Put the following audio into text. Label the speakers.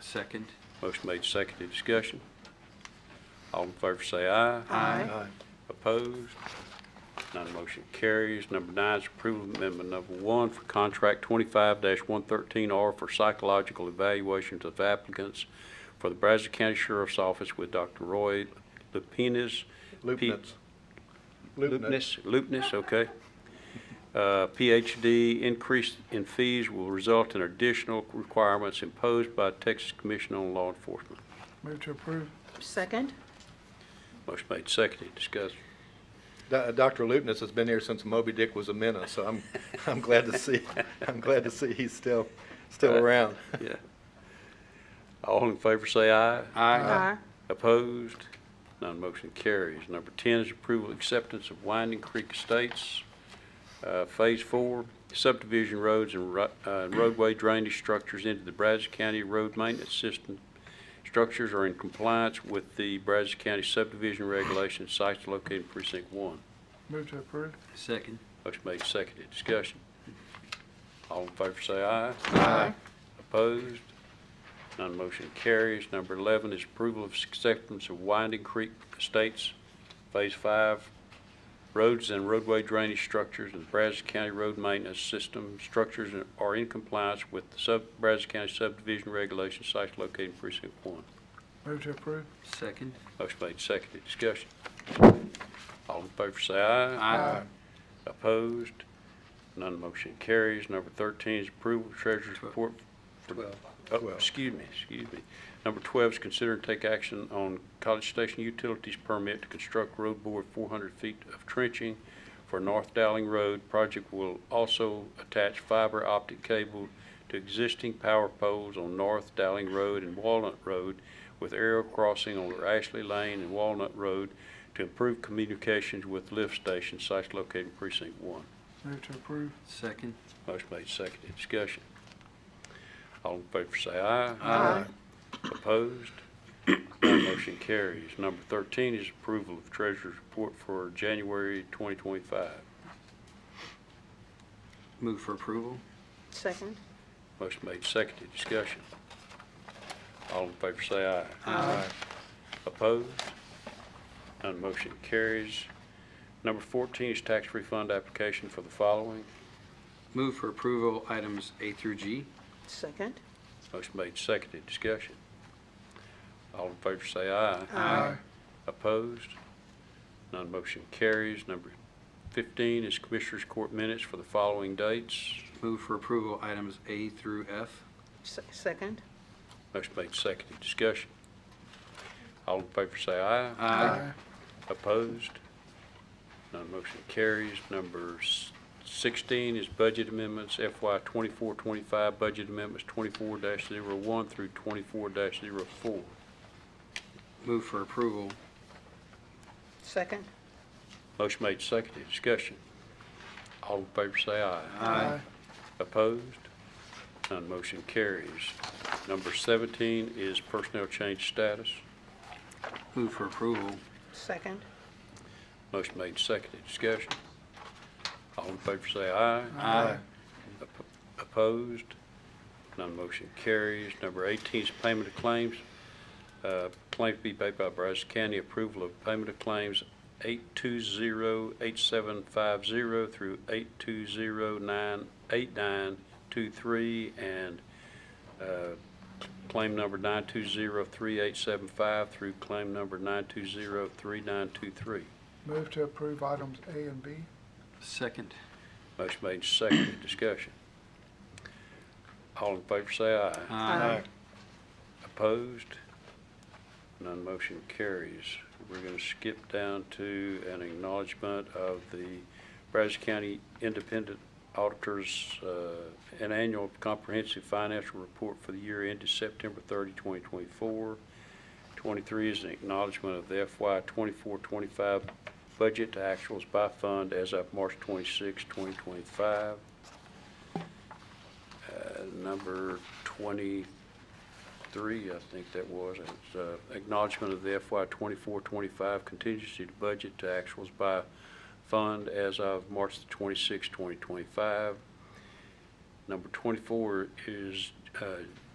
Speaker 1: Second.
Speaker 2: Motion made, seconded, discussion. All in favor say aye.
Speaker 3: Aye.
Speaker 2: Opposed? None motion carries. Number nine is approval of amendment number one for contract twenty-five one thirteen R for psychological evaluations of applicants for the Brazos County Sheriff's Office with Dr. Roy Lupinas.
Speaker 3: Lupnitz. Lupnitz.
Speaker 2: Lupness, Lupness, okay. Uh, PhD increase in fees will result in additional requirements imposed by Texas Commission on Law Enforcement.
Speaker 4: Move to approve.
Speaker 5: Second?
Speaker 2: Motion made, seconded, discussed.
Speaker 3: Do- uh, Dr. Lupnitz has been here since Moby Dick was a menace, so I'm, I'm glad to see, I'm glad to see he's still, still around.
Speaker 2: Yeah. All in favor say aye.
Speaker 5: Aye.
Speaker 2: Opposed? None motion carries. Number 10 is approval acceptance of Winding Creek Estates, uh, Phase 4, subdivision roads and ro- uh, roadway drainage structures into the Brazos County Road Maintenance System. Structures are in compliance with the Brazos County subdivision regulations, sites located in precinct 1.
Speaker 4: Move to approve.
Speaker 1: Second.
Speaker 2: Motion made, seconded. Discussion. All in favor say aye.
Speaker 4: Aye.
Speaker 2: Opposed? None motion carries. Number 11 is approval of acceptance of Winding Creek Estates Phase 5 Roads and roadway drainage structures and Brazos County Road Maintenance System structures are in compliance with the sub- Brazos County subdivision regulations, sites located in precinct 1.
Speaker 4: Move to approve.
Speaker 1: Second.
Speaker 2: Motion made, seconded, discussion. All in favor say aye.
Speaker 1: Aye.
Speaker 2: Opposed? None motion carries. Number 13 is approval of treasurer's report. for-
Speaker 3: Twelve.
Speaker 2: Oh,
Speaker 3: Twelve.
Speaker 2: Excuse me, excuse me. Number 12 is consider and take action on College Station Utilities Permit to construct road board 400 feet of trenching for North Dowling Road. Project will also attach fiber optic cable to existing power poles on North Dowling Road and Walnut Road with aerial crossing over Ashley Lane and Walnut Road to improve communications with lift station sites located in precinct one.
Speaker 4: Move to approve.
Speaker 1: Second.
Speaker 2: Motion made, seconded, discussion. All in favor say aye.
Speaker 1: Aye.
Speaker 2: Opposed? None motion carries. Number 13 is approval of treasurer's report for January 2025.
Speaker 1: Move for approval.
Speaker 5: Second?
Speaker 2: Motion made, seconded, discussion. All in favor say aye.
Speaker 3: Aye.
Speaker 2: Opposed? None motion carries. Number 14 is tax refund application for the following.
Speaker 1: Move for approval items A through G.
Speaker 5: Second?
Speaker 2: Motion made, seconded, discussion. All in favor say aye.
Speaker 4: Aye.
Speaker 2: Opposed? None motion carries. Number 15 is Commissioners Court minutes for the following dates.
Speaker 1: Move for approval items A through F.
Speaker 5: Se- Second?
Speaker 2: Motion made, seconded, discussion. All in favor say aye.
Speaker 4: Aye.
Speaker 2: Opposed? None motion carries. Number s- 16 is budget amendments, FY 24-25 budget amendments 24-01 through 24-04.
Speaker 1: Move for approval.
Speaker 5: Second?
Speaker 2: Motion made, seconded, discussion. All in favor say aye.
Speaker 4: Aye.
Speaker 2: Opposed? None motion carries. Number 17 is personnel change status.
Speaker 1: Move for approval.
Speaker 5: Second?
Speaker 2: Motion made, seconded, discussion. All in favor say aye.
Speaker 1: Aye.
Speaker 2: Op- Opposed? None motion carries. Number 18 is payment of claims. Uh, Claim to be paid by Brazos County. Approval of payment of claims 820-8750 through 820-8923 and uh, claim number 920-3875 through claim number 920-3923.
Speaker 4: Move to approve items A and B.
Speaker 1: Second.
Speaker 2: Motion made, and seconded. Discussion. All in favor say aye.
Speaker 1: uh,
Speaker 2: Opposed? None motion carries. We're going to skip down to an acknowledgement of the Brazos County Independent Auditors, uh, an annual comprehensive financial report for the year ended September 30, 2024. 23 is an acknowledgement of the FY 24-25 budget to actuals by fund as of March 26, 2025. Uh, Number 20, three, I think that was, and it's uh, acknowledgement of the FY 24-25 contingency to budget to actuals by fund as of March the 26, 2025. Number 24 is uh,